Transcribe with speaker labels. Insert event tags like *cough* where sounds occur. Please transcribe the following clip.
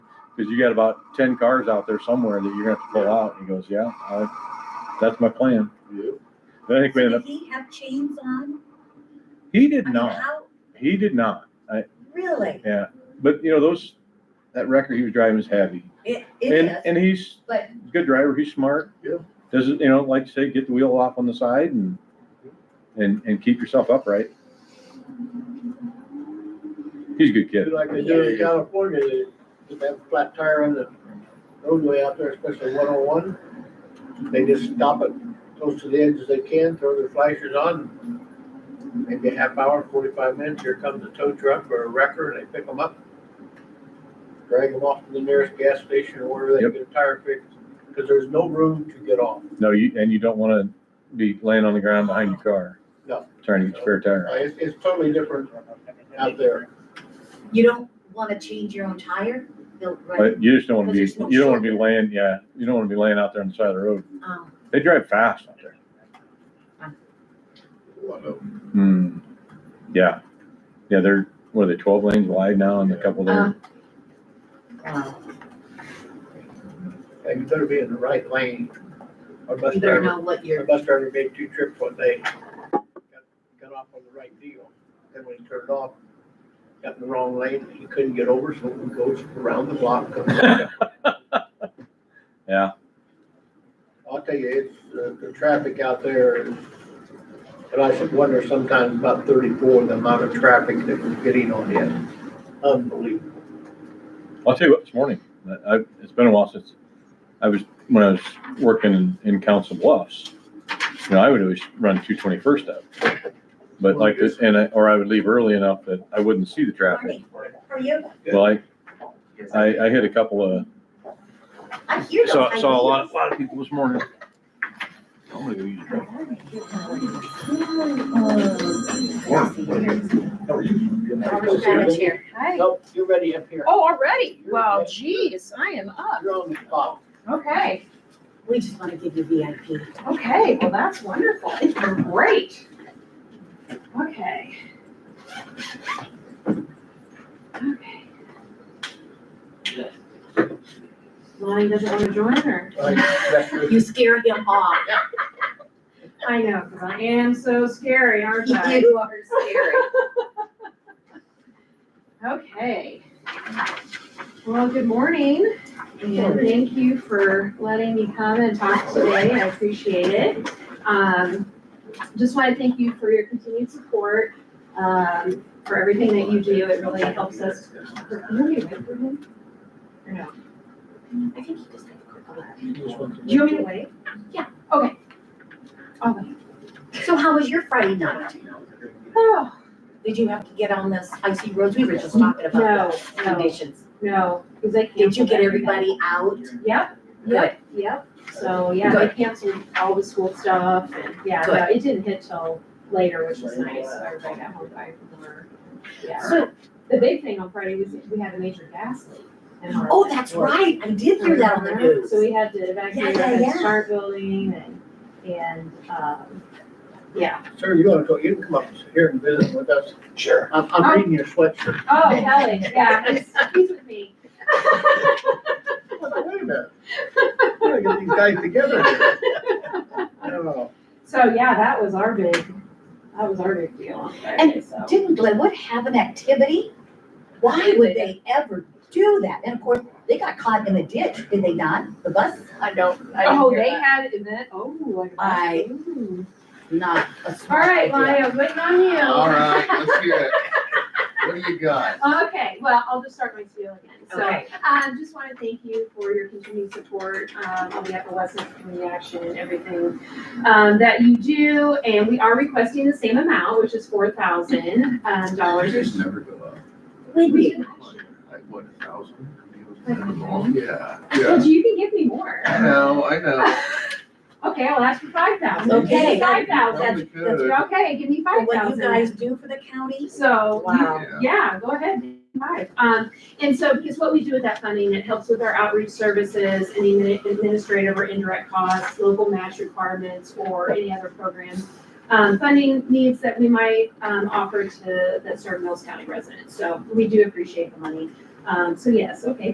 Speaker 1: Cause you got about ten cars out there somewhere that you're gonna have to pull out. He goes, yeah, I, that's my plan. But I think we
Speaker 2: So
Speaker 1: ended
Speaker 2: Did
Speaker 1: up,
Speaker 2: he have chains on?
Speaker 1: he did
Speaker 2: I mean,
Speaker 1: not,
Speaker 2: how-
Speaker 1: he did not.
Speaker 2: Really?
Speaker 1: Yeah. But you know, those, that record he was driving is heavy.
Speaker 2: It, it
Speaker 1: And,
Speaker 2: is.
Speaker 1: and he's
Speaker 2: but-
Speaker 1: a good driver. He's smart.
Speaker 3: Yeah.
Speaker 1: Doesn't, you know, like you say, get the wheel off on the side and, and, and keep yourself upright. He's a good kid.
Speaker 3: Do like they do in California, they just have a flat tire on the roadway out there, especially one oh one. They just stop it close to the edge as they can, throw their flashers on. Maybe a half hour, forty-five minutes, here comes a tow truck or a wrecker, and they pick them up. Drag them off to the nearest gas station or wherever they
Speaker 1: Yep.
Speaker 3: get a tire fixed, because there's no room to get off.
Speaker 1: No, you, and you don't wanna be laying on the ground behind your car.
Speaker 3: No.
Speaker 1: Trying to get your spare tire.
Speaker 3: Uh, It's, it's totally different out there.
Speaker 2: You don't wanna change your own tire? No, right?
Speaker 1: But you just don't wanna be,
Speaker 2: Because there's no
Speaker 1: you don't wanna be
Speaker 2: shoulder.
Speaker 1: laying, yeah, you don't wanna be laying out there on the side of the road.
Speaker 2: Um,
Speaker 1: They drive fast out there. Hmm, yeah. Yeah, they're, what are they, twelve lanes wide now and a couple there?
Speaker 2: uh,
Speaker 3: And you better be in the right lane. or bus
Speaker 2: You better
Speaker 3: driver-
Speaker 2: know what
Speaker 3: The
Speaker 2: you're,
Speaker 3: bus driver made two trips one day, got, got off on the right deal, then when he turned off, got in the wrong lane, he couldn't get over, so he goes around the block. comes
Speaker 1: *laughs*
Speaker 3: back up.
Speaker 2: Uh-huh.
Speaker 1: Yeah.
Speaker 3: I'll tell you, it's, uh, the traffic out there, is- and I should wonder sometimes about thirty-four, the amount of traffic that we're getting on it, unbelievable.
Speaker 1: I'll tell you what, this morning, I, I- it's been a while since, I was, when I was working in, in Council Bluffs, you know, I would always run two twenty-first up. But like, this- and I, or I would leave early enough that I wouldn't see the traffic.
Speaker 2: morning, how are you?
Speaker 1: Well, I, I, I hit a couple of,
Speaker 2: I hear those.
Speaker 1: saw,
Speaker 2: high
Speaker 1: saw a lot,
Speaker 2: heels.
Speaker 1: a lot of people this morning. I'm gonna go use the
Speaker 2: Oh,
Speaker 3: You're
Speaker 2: I'll grab a
Speaker 3: ready-
Speaker 2: chair.
Speaker 4: Hi.
Speaker 3: Nope, you're ready up here.
Speaker 4: Oh, already? Wow, geez, I am up.
Speaker 3: You're on the spot.
Speaker 4: Okay,
Speaker 2: We just wanna give you VIP.
Speaker 4: okay, well, that's wonderful. It's been great. Okay. Okay.
Speaker 2: Lonnie doesn't wanna join or?
Speaker 3: All right, that's your-
Speaker 2: You scare him off.
Speaker 4: I know, because I am so scary, aren't I?
Speaker 2: You *laughs* are scary.
Speaker 4: Okay. Well, good morning, and
Speaker 3: morning.
Speaker 4: thank you for letting me come and talk today. I appreciate it. Um, just want to thank you for your continued support, um, for everything that you do. It really helps us. Or no?
Speaker 2: I think he just had a quick look.
Speaker 4: Do you want me to wait?
Speaker 2: Yeah.
Speaker 4: Okay. Oh, I'll wait.
Speaker 2: So how was your Friday night?
Speaker 4: Oh,
Speaker 2: Did you have to get on this icy roads? We were just talking about
Speaker 4: no,
Speaker 2: the
Speaker 4: no,
Speaker 2: conditions.
Speaker 4: no, because I canceled.
Speaker 2: Did you get
Speaker 4: everything.
Speaker 2: everybody out?
Speaker 4: Yep, yep, yep. So, yeah, I
Speaker 2: Good.
Speaker 4: canceled all the school stuff and, yeah, no, it didn't hit till later, which was nice. So Everybody got home by four. Yeah.
Speaker 2: So,
Speaker 4: The big thing on Friday was we had a major gas leak. in our-
Speaker 2: oh, that's right. I did hear that on the news.
Speaker 4: So we had to evacuate
Speaker 2: Yeah, yeah,
Speaker 4: the
Speaker 2: yeah.
Speaker 4: start building and, and, um, yeah.
Speaker 3: Sir, you wanna go, you can come up here and visit with us.
Speaker 5: Sure.
Speaker 3: I'm, I'm reading your sweatshirt.
Speaker 4: Oh, Kelly, yeah, he's, he's with me.
Speaker 3: Wait a minute. We gotta get these guys together *laughs* here. Oh. I don't know.
Speaker 4: So yeah, that was our big, that was our big deal on Friday,
Speaker 2: And
Speaker 4: so.
Speaker 2: Didn't Glenwood have an activity? Why would they ever do that? And of course, they got caught in a ditch, did they not? The bus?
Speaker 6: I don't, I
Speaker 4: Oh,
Speaker 6: didn't hear
Speaker 4: they
Speaker 6: that.
Speaker 4: had an event, oh,
Speaker 2: I-
Speaker 4: I. Ooh.
Speaker 2: Not a
Speaker 4: All
Speaker 2: smart
Speaker 4: right,
Speaker 2: idea.
Speaker 4: Lyle, waiting on you.
Speaker 5: All right, let's hear it. What do you got?
Speaker 4: Okay, well, I'll just start my spiel again. So,
Speaker 2: Okay.
Speaker 4: um, just want to thank you for your continued support, um, on behalf of Weston Community Action and everything, um, that you do. And we are requesting the same amount, which is four thousand, um, dollars.
Speaker 5: Just never go up.
Speaker 2: We
Speaker 4: We
Speaker 2: did.
Speaker 4: did.
Speaker 5: Like, what, a thousand? Never go up. Yeah, yeah.
Speaker 4: Well, you can give me more.
Speaker 5: I know, I know.
Speaker 4: Okay, I'll ask for five thousand.
Speaker 2: Okay.
Speaker 4: Five thousand.
Speaker 5: Probably could.
Speaker 4: Okay, give me five
Speaker 2: What you guys
Speaker 4: thousand.
Speaker 2: do for the county?
Speaker 4: So. you-
Speaker 2: Wow.
Speaker 5: Yeah.
Speaker 4: Um, Yeah, go ahead, name five. Um, and so, because what we do with that funding, it helps with our outreach services, any admini- administrative or indirect costs, local match requirements, or any other program, um, funding needs that we might, um, offer to, that serve Mills County residents. So we do appreciate the money. Um, so yes, okay,